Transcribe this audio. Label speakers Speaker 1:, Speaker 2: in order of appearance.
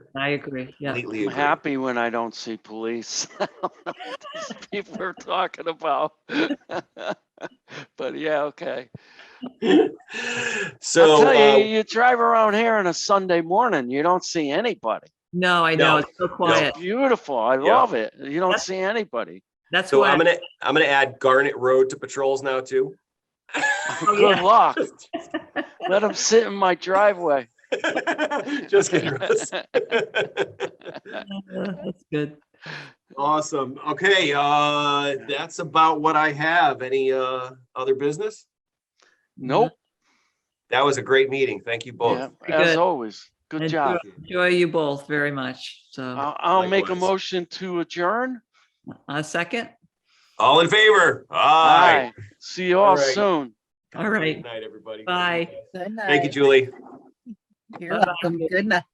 Speaker 1: I agree, yeah.
Speaker 2: completely
Speaker 3: I'm
Speaker 2: agree.
Speaker 3: happy when I don't see police. I don't know what these People are talking about. But yeah, okay. I'll
Speaker 2: So,
Speaker 3: tell you,
Speaker 2: uh,
Speaker 3: you drive around here on a Sunday morning, you don't see anybody.
Speaker 1: No, I know,
Speaker 2: No,
Speaker 1: it's so quiet.
Speaker 3: It's beautiful. I
Speaker 2: Yeah.
Speaker 3: love it. You don't
Speaker 1: That's-
Speaker 3: see anybody.
Speaker 1: That's
Speaker 2: so I'm
Speaker 1: why,
Speaker 2: gonna, I'm gonna add Garnet Road to patrols now too.
Speaker 3: Good
Speaker 1: Oh, yeah.
Speaker 3: luck. Let them sit in my driveway.
Speaker 2: Just kidding, Russ.
Speaker 1: Uh, that's good.
Speaker 2: Awesome. Okay, uh, that's about what I have. Any, uh, other business? Mm-hmm.
Speaker 3: Nope.
Speaker 2: That was a great meeting. Thank you
Speaker 3: Yeah,
Speaker 2: both.
Speaker 3: As
Speaker 1: good.
Speaker 3: always. Good
Speaker 1: And
Speaker 3: job.
Speaker 1: Enjoy you both very much, so,
Speaker 3: I'll, I'll make a
Speaker 2: Likewise.
Speaker 3: motion to adjourn.
Speaker 2: Uh,
Speaker 1: a second,
Speaker 2: All in favor? Aye.
Speaker 3: Aye. See you all
Speaker 2: All right.
Speaker 3: soon.
Speaker 1: all right.
Speaker 2: Good night, everybody.
Speaker 1: Bye.
Speaker 4: Good night.
Speaker 2: Thank you, Julie.
Speaker 4: You're welcome. Good night.